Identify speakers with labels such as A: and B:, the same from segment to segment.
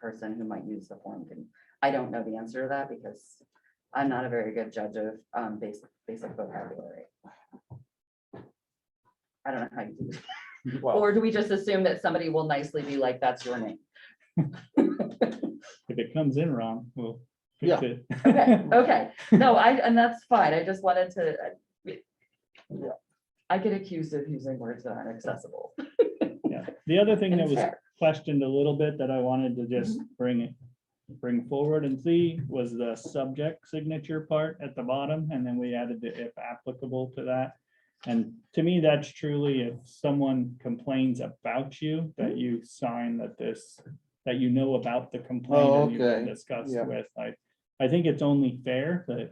A: person who might use the form can, I don't know the answer to that because I'm not a very good judge of um basic, basic vocabulary. I don't know how you do this.
B: Well,
A: Or do we just assume that somebody will nicely be like, that's your name?
C: If it comes in wrong, we'll
B: Yeah.
C: fix it.
A: Okay, okay. No, I, and that's fine. I just wanted to. uh,
B: Yeah.
A: I get accused of using words that aren't accessible.
C: Yeah. The other thing
A: And
C: that was
A: fair.
C: questioned a little bit that I wanted to just
B: Mm-hmm.
C: bring it, bring forward and see was the subject signature part at the bottom, and then we added the if applicable to that. And to me, that's truly if someone complains about you,
B: Mm-hmm.
C: that you sign that this, that you know about the
B: Oh,
C: complaint and
B: okay.
C: you discussed
B: Yeah.
C: with, I, I think it's only fair that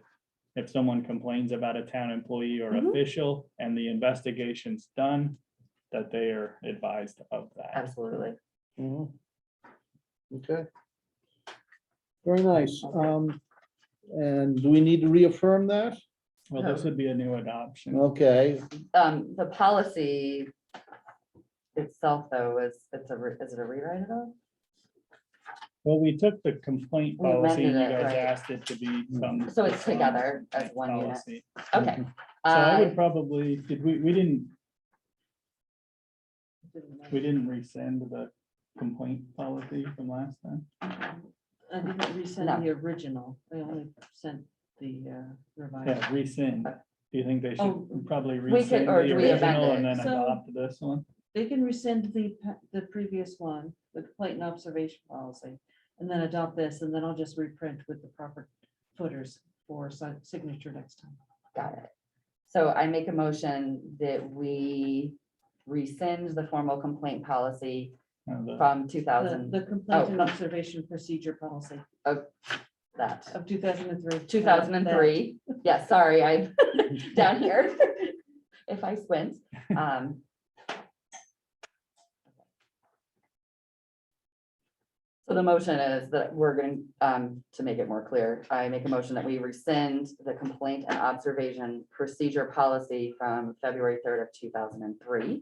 C: if someone complains about a town employee or
B: Mm-hmm.
A: Mhm.
C: official and the investigation's done, that they are advised of that.
A: Absolutely.
B: mhm. Mm-hmm. Okay. Very nice. Um, and do we need to reaffirm that?
C: Well, this would be a new adoption.
B: Okay,
A: Um, the policy itself, though, is, it's a, re- is it a rewrite at all?
C: Well, we took the complaint
A: We
C: policy and you
A: amended it,
C: guys
A: right.
C: asked it to be. some-
A: So it's together as
C: complaint
A: one unit.
C: policy.
A: Okay.
C: Mm-hmm. So I
A: Uh,
C: would probably, did we, we didn't, we didn't rescind the complaint policy from last time?
D: I didn't
A: No.
D: resend the original, I only sent the uh, revised.
C: Yeah, rescind. Do you think they
D: Oh,
C: should probably
A: Uh, we could-
C: rescind the
A: or do we amend
C: original
A: it?
C: and then
D: So-
C: adopt this one?
D: They can rescind the, pa- the previous one, the complaint and observation policy, and then adopt this, and then I'll just reprint with the proper footers for si- signature next time.
A: Got it. So I make a motion that we rescind the formal complaint policy
C: Uh, the-
A: from two
D: The-
A: thousand,
D: The complaint and
A: oh.
D: observation procedure policy
A: that,
D: of two thousand and three.
A: two thousand and three. Yeah, sorry, I, down here, if I squint. Um, So the motion is that we're going, um, to make it more clear, I make a motion that we rescind the complaint and observation procedure policy from February third of two thousand and three.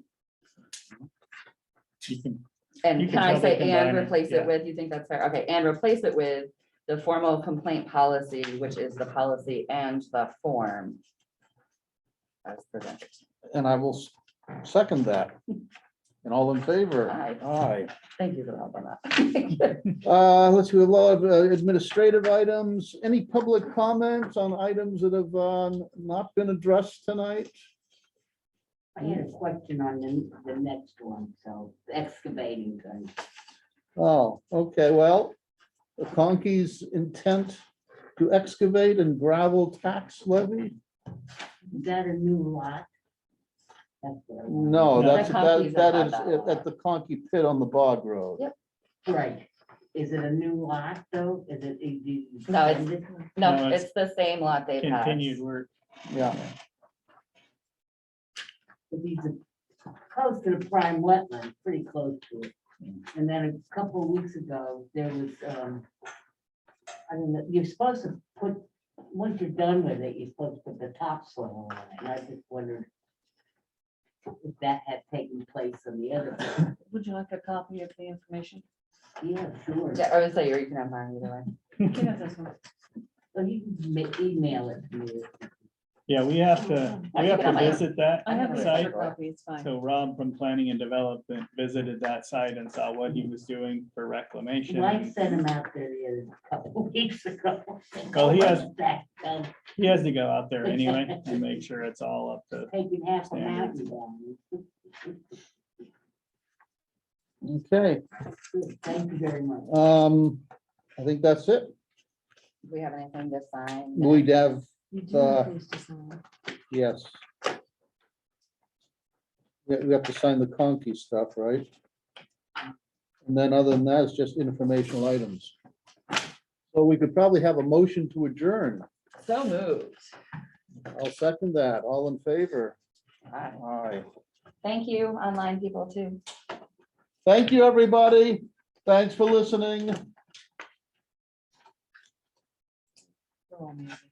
C: you can-
A: And
C: You
A: can
C: can
A: I
C: probably
A: say and
C: combine it,
A: replace
C: yeah.
A: it with, you think that's fair? Okay, and replace it with the formal complaint policy, which is the policy and the form. As presented.
B: and I will s- second that. And all in favor?
A: Aye.
B: Aye.
A: Thank you for the help on that.
B: Uh, let's do a lot of uh, administrative items. Any public comments on items that have um, not been addressed tonight?
E: I had a question on the, the next one, so excavating thing.
B: Oh, okay, well, the Conkey's intent to excavate and gravel tax levy?
E: Is that a new lot? That's what I want.
B: No,
C: No.
B: that's,
A: The Conkey's
B: that that
A: have
B: is
A: had that
B: at the Conkey pit on the bog road.
A: Yep.
E: Right. Is it a new lot though? Is it? do you-
A: No, it's- No,
C: No, it's
A: it's the same lot they've had.
C: Continued work.
B: Yeah,
E: If he's a- close to the prime wetland, pretty close to it. And then a couple of weeks ago, there was, um, I don't know, you're supposed to put, once you're done with it, you're supposed to put the topsoil on it. And I just wondered if that had taken place on the other. one.
D: Would you like a copy of the information?
E: Yeah, sure.
A: Yeah, I would say you can have mine either way.
D: You can have this one.
E: So you can ma- email it to me.
C: Yeah, we have to,
A: I
C: we have
A: think I
C: to
A: might have-
C: visit that.
D: I have an
C: site.
D: extra copy, it's fine.
C: So Rob from Planning and Development visited that site and saw what he was doing for reclamation.
E: Mike
C: and
E: sent him out there the other couple weeks ago.
C: Well, he has-
E: Back, um,
C: He has to go out there anyway and make sure it's all up to,
E: Taking half a
C: Standard.
E: mountain down.
B: okay,
E: Thank you very much.
B: um, I think that's it.
A: Do we have anything to sign?
B: We'd have,
D: You do
B: Uh,
D: have these to sign.
B: yes. We we have to sign the Conkey stuff, right? And then other than that, it's just informational items. So we could probably have a motion to adjourn.
A: So moved.
B: I'll second that. All in favor?
A: Alright.
B: Aye.
A: Thank you, online people too.
B: Thank you, everybody. Thanks for listening.
D: They're all amazing.